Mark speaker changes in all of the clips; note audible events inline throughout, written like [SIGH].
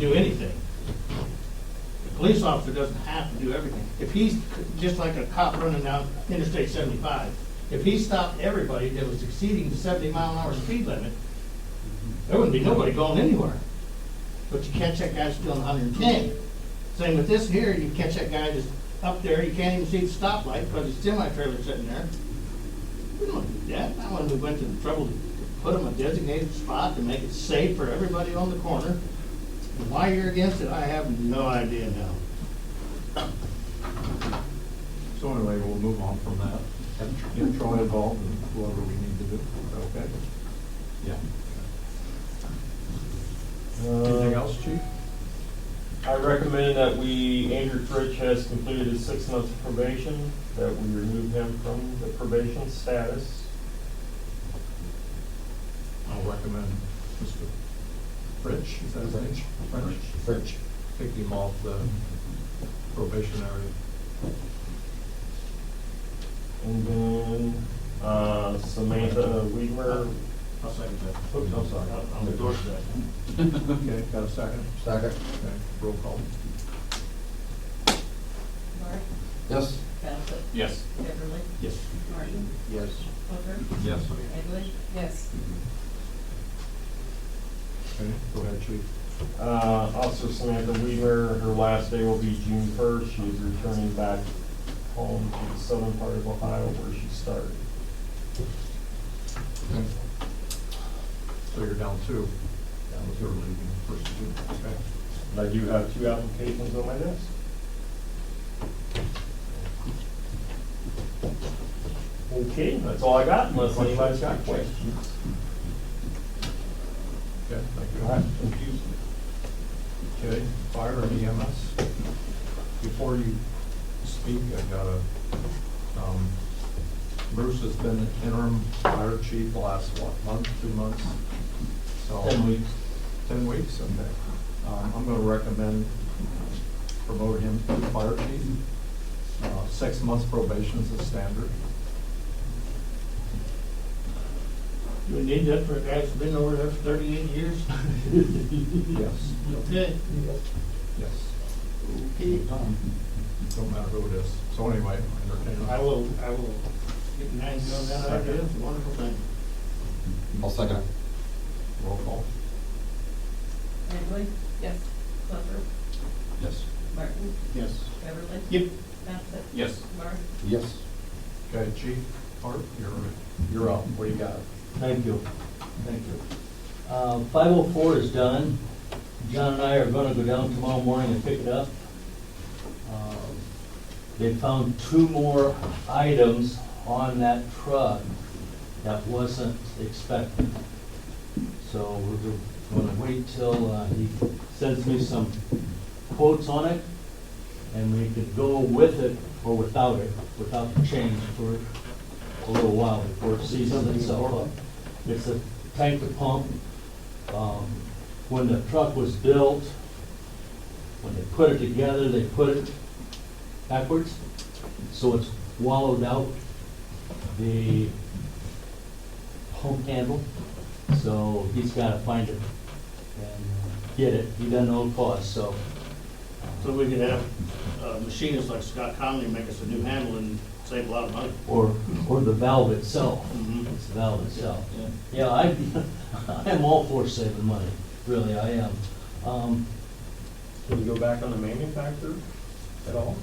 Speaker 1: do anything. The police officer doesn't have to do everything. If he's, just like a cop running down Interstate seventy-five, if he stopped everybody that was exceeding the seventy mile an hour speed limit, there wouldn't be nobody going anywhere. But you catch that guy that's doing hundred and ten. Same with this here, you catch that guy that's up there, you can't even see the stoplight because his semi-trailer's sitting there. We don't do that, not when we went to the trouble to put them a designated spot to make it safe for everybody on the corner. And Why you're against it, I have no idea now.
Speaker 2: So anyway, we'll move on from that. Have- Get Troy involved in whatever we need to do, okay? Yeah. Anything else, chief?
Speaker 3: Uh, I recommend that we, Andrew Fritsch has completed his six months of probation, that we remove him from the probation status.
Speaker 2: I'll recommend Mr. French, is that his name? French. French. Take him off the probationary.
Speaker 3: And then uh, Samantha Weimer,
Speaker 1: I'll second that.
Speaker 3: oops, I'm sorry.
Speaker 1: On the door today.
Speaker 2: Okay, got a second? Second. Okay, roll call.
Speaker 4: Mark,
Speaker 5: Yes.
Speaker 4: Bassett,
Speaker 6: Yes.
Speaker 4: Beverly,
Speaker 1: Yes.
Speaker 4: Martin,
Speaker 5: Yes.
Speaker 4: Hooker,
Speaker 2: Yes.
Speaker 4: Egley. Yes.
Speaker 2: Okay, go ahead, chief.
Speaker 3: Uh, Officer Samantha Weimer, her last day will be June first. She is returning back home to the southern part of Ohio where she started.
Speaker 2: Okay. So you're down two. That was early, first of June, okay?
Speaker 3: And I do have two applications on my desk. Okay, that's all I got unless anybody's got questions.
Speaker 2: Okay, thank you.
Speaker 3: All right, thank you.
Speaker 2: Okay, fire and EMS. Before you speak, I gotta, um, Bruce has been interim fire chief the last, what, month, two months? So-
Speaker 3: Ten weeks.
Speaker 2: Ten weeks, okay. Um, I'm gonna recommend promote him to fire chief. Uh, six months probation is the standard.
Speaker 1: Do we need that for a guy that's been over there for thirty-eight years?
Speaker 7: [LAUGHS]
Speaker 2: Yes.
Speaker 1: Okay.
Speaker 2: Yes. Don't matter who it is. So anyway, entertain.
Speaker 1: I will, I will get nine on that idea, it's a wonderful thing.
Speaker 5: I'll second it.
Speaker 2: Roll call.
Speaker 4: Egley. Yes. Hooker,
Speaker 5: Yes.
Speaker 4: Martin,
Speaker 1: Yes.
Speaker 4: Beverly.
Speaker 1: Yep.
Speaker 4: Bassett.
Speaker 6: Yes.
Speaker 4: Mark,
Speaker 5: Yes.
Speaker 2: Okay, Chief Hart, you're, you're up. What do you got?
Speaker 7: Thank you, thank you. Uh, 504 is done. John and I are gonna go down tomorrow morning and pick it up. Uh, They found two more items on that truck that wasn't expected. So we're gonna wait till uh, he sends me some quotes on it, and we could go with it or without it, without the change for a little while before it seasons itself up. It's a tank to pump. Um, When the truck was built, when they put it together, they put it backwards, so it's wallowed out the pump handle. So he's gotta find it and get it. He doesn't know the cost, so.
Speaker 1: So we could have uh, machinists like Scott Conley make us a new handle and save a lot of money.
Speaker 7: Or, or the valve itself.
Speaker 1: Mhm.
Speaker 7: It's the valve itself.
Speaker 1: Yeah.
Speaker 7: Yeah, I, [LAUGHS] I'm all for saving money, really, I am. Um,
Speaker 3: Can you go back on the manufacturer at all?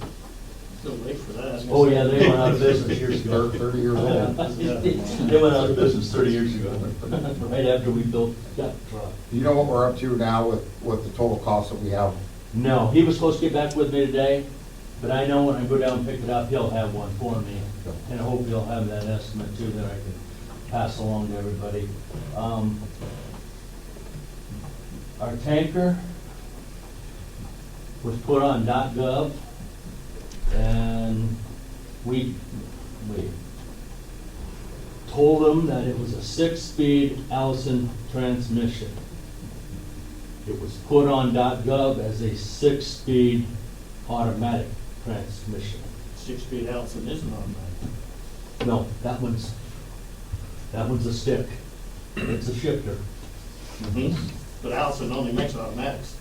Speaker 1: Still late for that.
Speaker 7: Oh, yeah,
Speaker 1: [LAUGHS]
Speaker 7: they went out of business years
Speaker 5: [LAUGHS]
Speaker 7: ago.
Speaker 5: Thirty years old.
Speaker 7: They went out of business thirty years ago, right after we built that truck.
Speaker 5: Do you know what we're up to now with, with the total cost that we have?
Speaker 7: No, he was supposed to get back with me today, but I know when I go down and pick it up, he'll have one for me. And I hope he'll have that estimate too that I can pass along to everybody. Um, Our tanker was put on gov and we, we told them that it was a six-speed Allison transmission. It was put on .gov as a six-speed automatic transmission.
Speaker 1: Six-speed Allison isn't on
Speaker 7: No, that one's, that one's a stick. It's a shifter. Mm-hmm.
Speaker 1: that. But Allison only makes automatics.